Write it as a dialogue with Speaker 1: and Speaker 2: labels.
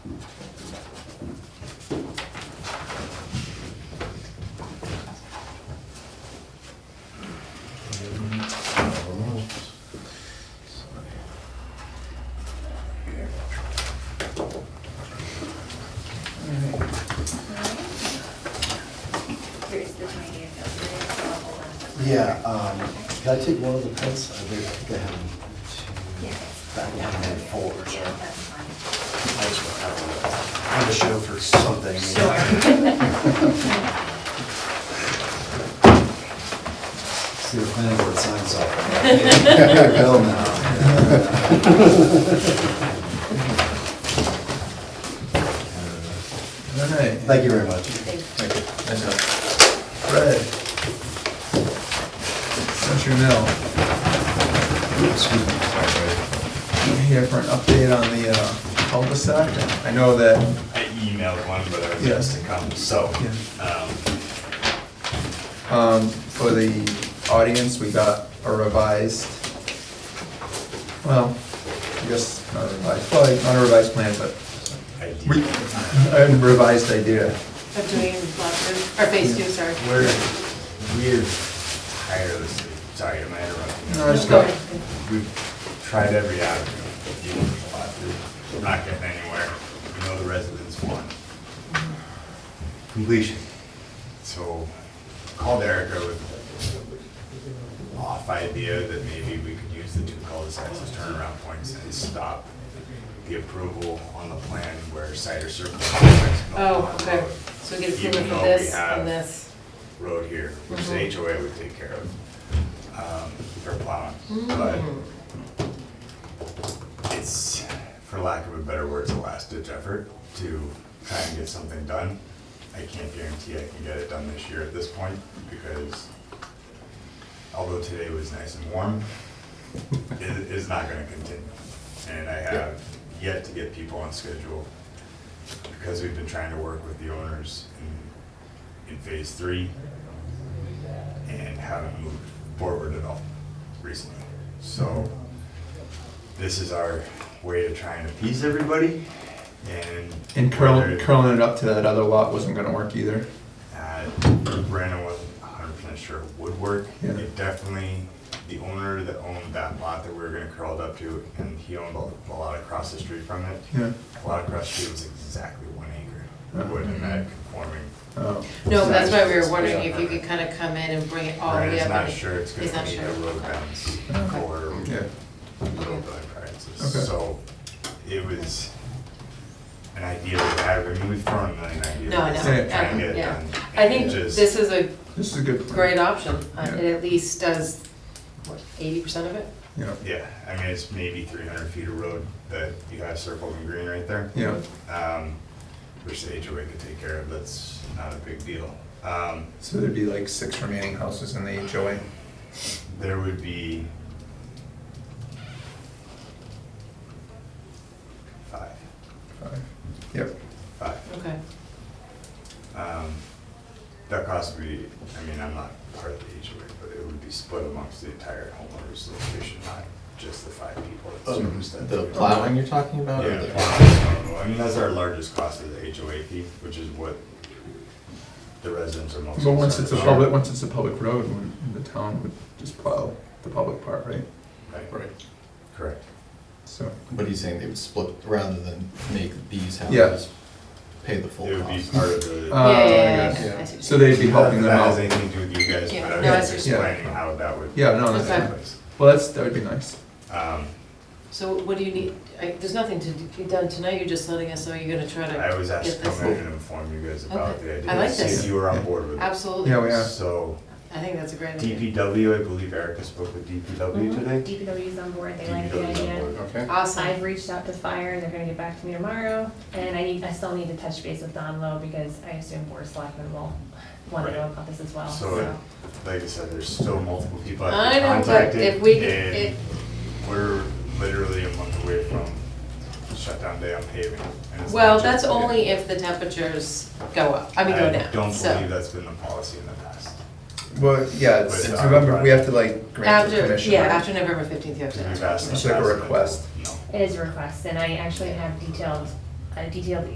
Speaker 1: Yeah, um, can I take one of the pens? I think I think I have two. I think I have four. I just want to have a- have a show for something. See the planning board signs off. Bill now.
Speaker 2: All right.
Speaker 1: Thank you very much.
Speaker 2: Thank you. Nice job. Fred. Century Mill. Excuse me. Sorry, Fred. I'm Here for an update on the uh, cul-de-sac. I know that,
Speaker 3: I emailed one, but I was
Speaker 2: Yes.
Speaker 3: asked to come, so.
Speaker 2: Yeah.
Speaker 3: um,
Speaker 2: um, for the audience, we got a revised, well, I guess not a revised, well, not a revised plan, but
Speaker 3: I did-
Speaker 2: we, a revised idea.
Speaker 4: Of doing lot two, or phase two, sorry.
Speaker 3: We're, we're tirelessly, sorry, am I interrupting?
Speaker 2: No, it's good.
Speaker 3: We've tried every avenue, dealing with lot three, we're not getting anywhere, we know the residents want completion. So called Erica with off idea that maybe we could use the two cul-de-sacs as turnaround points and stop the approval on the plan where cider circle.
Speaker 4: Oh, okay, so we get approval
Speaker 3: Even
Speaker 4: for
Speaker 3: though
Speaker 4: this
Speaker 3: we have
Speaker 4: and this.
Speaker 3: road here, which
Speaker 4: Mhm.
Speaker 3: the HOA would take care of, um, for plowing. But
Speaker 4: Mm.
Speaker 3: it's, for lack of a better word, it's a last ditch effort to try and get something done. I can't guarantee I can get it done this year at this point, because although today was nice and warm, it is not gonna continue. And I have yet to get people on schedule, because we've been trying to work with the owners in, in phase three, and haven't moved forward at all recently. So this is our way of trying to appease everybody and.
Speaker 2: And curling,
Speaker 3: whether-
Speaker 2: curling it up to that other lot wasn't gonna work either.
Speaker 3: uh, Brandon wasn't hundred percent sure it would work.
Speaker 2: Yeah.
Speaker 3: It definitely, the owner that owned that lot that we were gonna curl it up to, and he owned a a lot across the street from it.
Speaker 2: Yeah.
Speaker 3: A lot across the street was exactly one acre, it wouldn't have met conforming.
Speaker 2: Oh.
Speaker 4: No, but that's why we were
Speaker 3: Size.
Speaker 4: wondering if you could kind of come in and bring it all the way
Speaker 3: Brandon's
Speaker 4: up.
Speaker 3: not
Speaker 4: and-
Speaker 3: sure it's
Speaker 4: He's
Speaker 3: gonna
Speaker 4: not
Speaker 3: meet
Speaker 4: sure.
Speaker 3: the road bounds
Speaker 2: Okay.
Speaker 3: or
Speaker 2: Yeah.
Speaker 3: little building
Speaker 2: Okay.
Speaker 3: practices. So it was an idea that I have, I mean, we've thrown a million ideas.
Speaker 4: No, I
Speaker 3: at
Speaker 4: know,
Speaker 2: Yeah,
Speaker 3: this, Trying to
Speaker 4: I
Speaker 3: get
Speaker 4: know,
Speaker 3: it
Speaker 4: yeah.
Speaker 3: done.
Speaker 4: I
Speaker 3: and
Speaker 4: think
Speaker 3: it just-
Speaker 4: this is a
Speaker 2: This is a good. plan.
Speaker 4: great option, Uh,
Speaker 2: Yeah.
Speaker 4: it at least does, what, eighty percent of it?
Speaker 2: Yeah,
Speaker 3: Yeah, I mean, it's maybe three hundred feet of road that you have circled in green right there.
Speaker 2: yeah,
Speaker 3: Um, which the HOA could take care of, that's not a big deal. Um,
Speaker 2: so there'd be like six remaining houses in the HOA.
Speaker 3: there would be five,
Speaker 2: Five. Yep,
Speaker 3: five.
Speaker 4: Okay,
Speaker 3: Um, that cost would be, I mean, I'm not part of the HOA, but it would be split amongst the entire homeowners association, not just the five people. that service that
Speaker 5: Um, The
Speaker 3: area.
Speaker 5: plowing you're talking about? or
Speaker 3: Yeah,
Speaker 5: the-
Speaker 3: well, I mean, that's our largest cost is the HOA fee, which is what the residents are most.
Speaker 2: but once it's a
Speaker 3: concerned about.
Speaker 2: public, once it's a public road, when the town would just plow the public part, right?
Speaker 3: Right,
Speaker 5: Right.
Speaker 3: Correct.
Speaker 2: So,
Speaker 5: But he's saying they would split rather than make these
Speaker 2: Yeah.
Speaker 5: houses pay the full
Speaker 3: It would be
Speaker 5: cost.
Speaker 3: part of the.
Speaker 2: Uh,
Speaker 4: yeah, yeah,
Speaker 2: I
Speaker 4: yeah,
Speaker 2: guess,
Speaker 4: yeah,
Speaker 5: yeah.
Speaker 4: I see what
Speaker 2: so
Speaker 4: you're saying.
Speaker 2: they'd be helping
Speaker 3: Not
Speaker 2: them
Speaker 3: that has
Speaker 2: out.
Speaker 3: anything to do with you guys,
Speaker 4: Yeah,
Speaker 3: but
Speaker 4: no,
Speaker 3: I'm
Speaker 4: I
Speaker 3: just
Speaker 4: see.
Speaker 2: Yeah.
Speaker 3: explaining how that would.
Speaker 2: Yeah, no,
Speaker 4: that's
Speaker 2: that's,
Speaker 4: Okay.
Speaker 3: place.
Speaker 2: well, that's, that would be nice.
Speaker 3: Um,
Speaker 4: So what do you need, I, there's nothing to be done tonight, you're just letting us know you're gonna try to
Speaker 3: I was asked to
Speaker 4: get this-
Speaker 3: come in and inform you guys about
Speaker 4: Okay.
Speaker 3: the idea.
Speaker 4: I like
Speaker 3: See
Speaker 4: this.
Speaker 3: if you were on board with it.
Speaker 4: Absolutely.
Speaker 2: Yeah, we are.
Speaker 3: So
Speaker 4: I think that's a great idea.
Speaker 3: DPW, I believe Erica spoke with DPW
Speaker 4: Mm-hmm.
Speaker 3: today.
Speaker 6: DPW's on board, they like the
Speaker 3: DPW is on board.
Speaker 6: idea.
Speaker 5: Okay.
Speaker 6: I've
Speaker 4: Awesome,
Speaker 6: reached out to fire, and they're gonna get back to me tomorrow, and I need, I still need to touch base with Don Lowe, because I assume Board of Selectmen will wanna know
Speaker 3: Right.
Speaker 6: about this as well,
Speaker 3: So,
Speaker 6: so.
Speaker 3: Like I said, there's still multiple people I've
Speaker 4: I
Speaker 3: been
Speaker 4: know, but
Speaker 3: contacted.
Speaker 4: if we,
Speaker 3: and
Speaker 4: it,
Speaker 3: We're literally a month away from shutdown day on paving. and it's
Speaker 4: well,
Speaker 3: not
Speaker 4: that's
Speaker 3: just-
Speaker 4: only if the temperatures go up, I mean, go
Speaker 3: I don't
Speaker 4: down,
Speaker 3: believe
Speaker 4: so.
Speaker 3: that's been the policy in the past.
Speaker 2: Well, yeah, it's,
Speaker 3: But,
Speaker 2: it's
Speaker 3: uh,
Speaker 2: remember, we have to like grant the
Speaker 4: After,
Speaker 2: permission.
Speaker 4: yeah,
Speaker 2: right?
Speaker 4: after November fifteenth, you have to.
Speaker 3: We've asked in the
Speaker 2: It's like a
Speaker 3: past, and
Speaker 2: request.
Speaker 3: No.
Speaker 6: It is a request, and I actually have detailed, a detailed